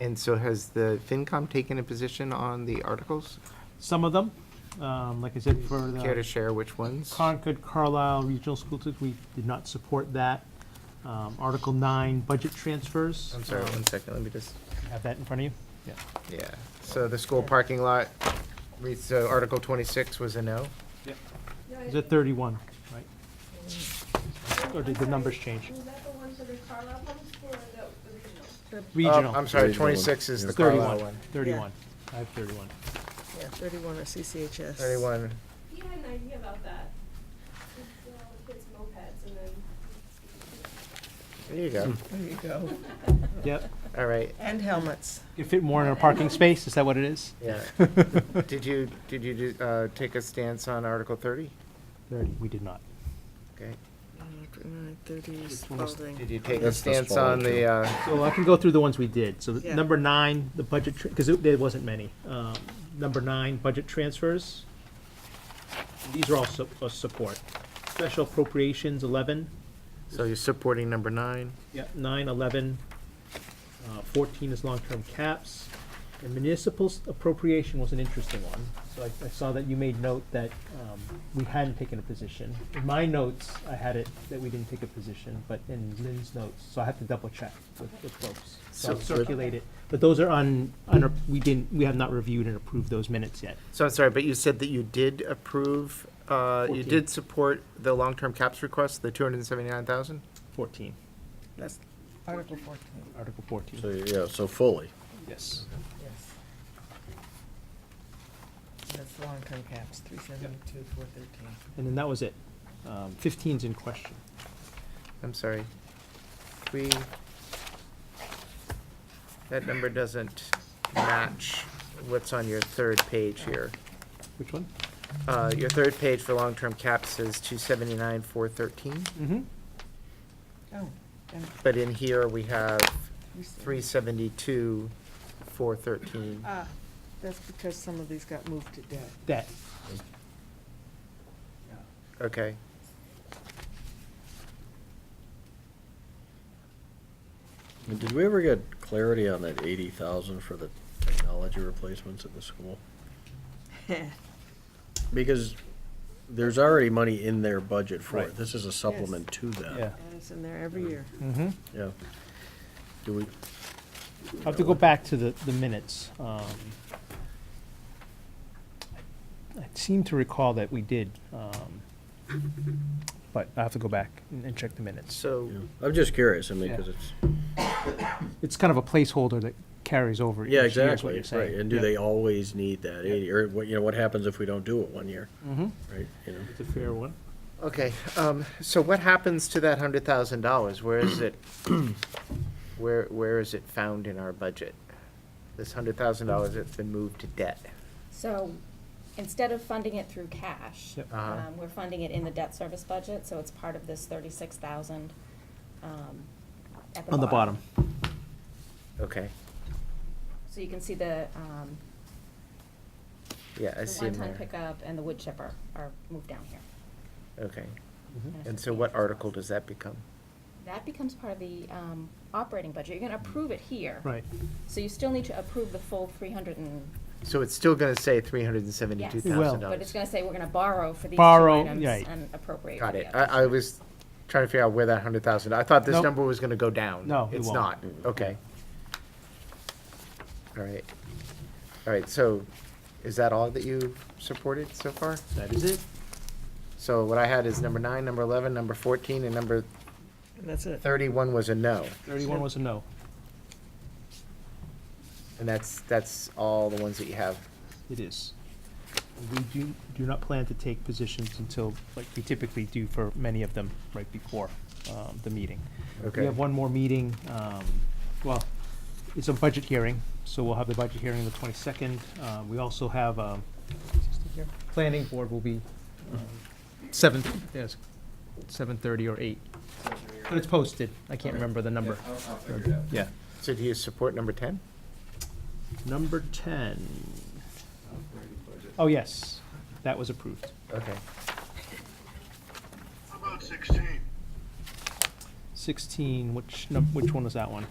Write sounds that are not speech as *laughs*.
And so has the FinCom taken a position on the articles? Some of them, um, like I said, for Care to the share which ones? Concord Carlisle Regional School District, we did not support that. Um, Article nine, budget transfers. I'm sorry, Um, one second, let me just, Have that in front of you? Yeah. yeah. So the school parking lot, reads- so Article twenty-six was a no? Is it thirty-one, right? Or did the numbers change? Um, Was that the ones that are Carlisle Public School or the the regional? Oh, Regional. I'm sorry, Regional one. twenty-six is the Carlisle one. Thirty-one. Thirty-one. I have thirty-one. Yeah, thirty-one or CCHS. Thirty-one, He had an idea about that. It's, uh, Kids mopeds and then. there you *laughs* go. There you go. Yep. All right, And helmets. You fit more in a parking space, is that what it is? *laughs* yeah. Did you, did you, do- uh, take a stance on Article thirty? Thirty, we did not. Okay. Thirty almost- Did Spalding. you take a That's stance on the, uh, So I can go through the ones we did. So the- Yeah. number nine, the budget, because there wasn't many. Um, Number nine, budget transfers. These are all su- uh, support. Special appropriations, 11, so you're supporting number nine? yeah, 9, 11, uh, 14 is long-term caps. And municipal s- appropriation was an interesting one. So I- I saw that you made note that um, we hadn't taken a position. In my notes, I had it that we didn't take a position, but in Lynn's notes, so I have to double-check with with folks. So I'll So- circulate it. But those are on, we didn't, we have not reviewed and approved those minutes yet. So I'm sorry, but you said that you did approve, uh, you Fourteen. did support the long-term caps request, the two hundred and seventy-nine thousand? 14, That's Article fourteen, Article 14. So, yeah, so fully. Yes. yes. That's the long-term caps, three seventy-two, four thirteen. And then that was it. Um, 15's in question. I'm sorry. We, that number doesn't match what's on your third page here. Which one? Uh, your third page for long-term caps says two seventy-nine, four thirteen, Mm-hmm. Oh, and but in here we have three. three seventy-two, four thirteen. Ah, that's because some of these got moved to debt. That, Okay. And Did we ever get clarity on that eighty thousand for the technology replacements at the school? Because there's already money in their budget for Right. it. This is a supplement to yeah. that. And it's in there every Mm. year. Mm-hmm. Yeah. Do we, I'll have to go back to the, the minutes. Um, I seem to recall that we did, um, but I have to go back and and check the minutes. So, yeah. I'm just curious, I mean, Yeah. because it's, It's kind of a placeholder that carries over each yeah, year, is what exactly, you're saying. right. And do they always need that eighty, or what, you know, what happens if we don't do it one year, Mm-hmm. right? You know, It's a fair one. Okay, um, so what happens to that hundred thousand dollars? Where is it? *clears throat* Where, where is it found in our budget? This hundred thousand dollars that's been moved to debt? So instead of funding it through cash, Yep. Uh-huh. um, we're funding it in the debt service budget, so it's part of this thirty-six thousand, um, at the On the bottom. Okay, So you can see the, um, yeah, I the see 'em one-ton there. pickup and the wood chipper are moved down here. Okay, Mm-hmm. it's and a so what payment. article does that become? That becomes part of the, um, operating budget. You're gonna approve it here. Mm-hmm. Right. So you still need to approve the full three hundred and, So it's still gonna say three hundred and seventy-two yes. thousand Well- But dollars? it's gonna say we're gonna borrow for these two Borrow, items right. and appropriate for Got the it. others. I, I was trying to figure out where that hundred thousand, I thought this Nope. number was gonna go down. No, it It's won't. not, okay. All right, all right, so is that all that you supported so far? That is it. So what I had is number nine, number eleven, number fourteen, and number And that's it. thirty-one was a no. Thirty-one was a no. And that's, that's all the ones that you have. It is. We do, do not plan to take positions until, like we typically do for many of them, right before um, the meeting. We Okay. have one more meeting, um, well, it's a budget hearing, so we'll have the budget hearing on the twenty-second. Uh, We also have, um, planning board will be um, seven, yes, seven-thirty or eight. But it's posted, I can't remember the number. Yeah. So do you support number ten? Number ten. Oh, yes, that was approved. Okay. How about 16? Sixteen, which, num- which one was that one?